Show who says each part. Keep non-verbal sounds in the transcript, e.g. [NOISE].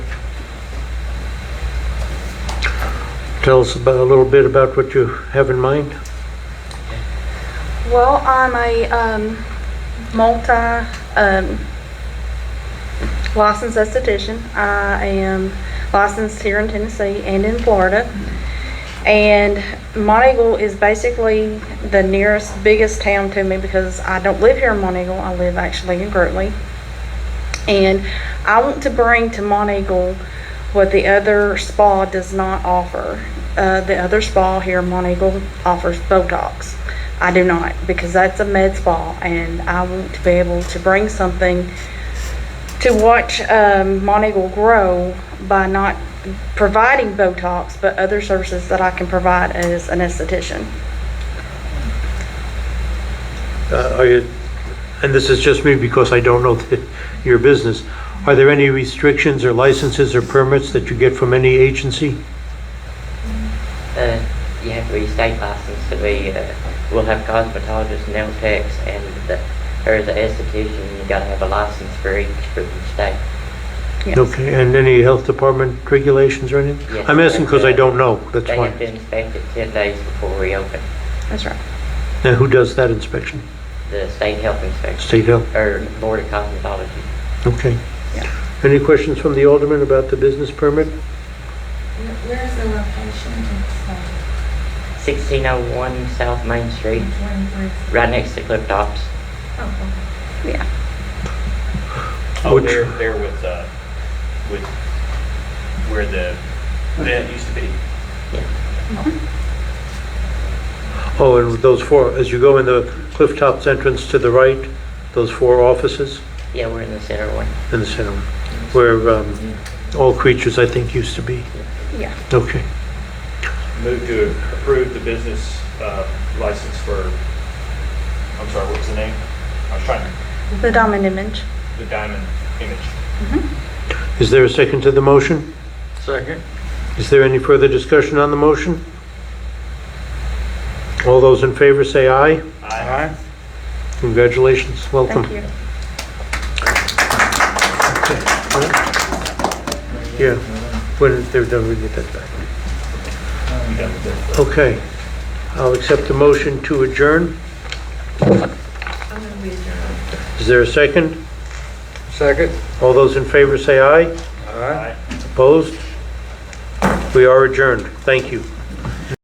Speaker 1: Tell us about, a little bit about what you have in mind.
Speaker 2: Well, I'm a um, multi um, licensed esthetician. I am licensed here in Tennessee and in Florida. And Monteagle is basically the nearest, biggest town to me because I don't live here in Monteagle. I live actually in Gertley. And I want to bring to Monteagle what the other spa does not offer. Uh, the other spa here in Monteagle offers Botox. I do not because that's a med spa and I want to be able to bring something to watch um, Monteagle grow by not providing Botox, but other services that I can provide as an esthetician.
Speaker 1: Uh, Are you, and this is just me because I don't know [LAUGHS] the- your business, are there any restrictions or licenses or permits that you get from any agency?
Speaker 3: Uh, you have to be state licensed to be, uh, we'll have cosmetologists, nail techs, and the, or the esthetician, you gotta have a license for each for the state.
Speaker 2: Yes.
Speaker 1: Okay, and any health department regulations or anything?
Speaker 3: Yes.
Speaker 1: I'm asking because I don't know, that's
Speaker 3: They have to
Speaker 1: why.
Speaker 3: inspect it ten days before we open,
Speaker 2: That's right.
Speaker 1: Now, who does that inspection?
Speaker 3: the state health inspection,
Speaker 1: State Health?
Speaker 3: or board of cosmetology.
Speaker 1: Okay.
Speaker 2: Yeah.
Speaker 1: Any questions from the alderman about the business permit?
Speaker 4: Where's the location? It's uh,
Speaker 3: Sixteen oh one South Main Street,
Speaker 4: 23.
Speaker 3: right next to Cliff Tops.
Speaker 4: Oh, okay.
Speaker 2: Yeah.
Speaker 5: Oh,
Speaker 1: Which-
Speaker 5: there, there with, uh, with where the event used to be.
Speaker 1: Oh, and those four, as you go in the Cliff Tops entrance to the right, those four offices
Speaker 3: Yeah, we're in the center one.
Speaker 1: in the center, where um, all creatures, I think, used to be.
Speaker 2: Yeah.
Speaker 1: Okay.
Speaker 5: Move to approve the business, uh, license for, I'm sorry, what was the name? I was trying,
Speaker 2: The diamond image.
Speaker 5: the diamond image.
Speaker 1: Is there a second to the motion?
Speaker 5: Second.
Speaker 1: Is there any further discussion on the motion? All those in favor say aye.
Speaker 5: Aye.
Speaker 1: Congratulations, welcome.
Speaker 2: Thank you.
Speaker 1: Yeah, when they're done, we get that back.
Speaker 5: You done with it?
Speaker 1: Okay, I'll accept the motion to adjourn.
Speaker 4: I'm going to be adjourned.
Speaker 1: Is there a second? Second. All those in favor say aye.
Speaker 5: Aye.
Speaker 1: Opposed? We are adjourned. Thank you.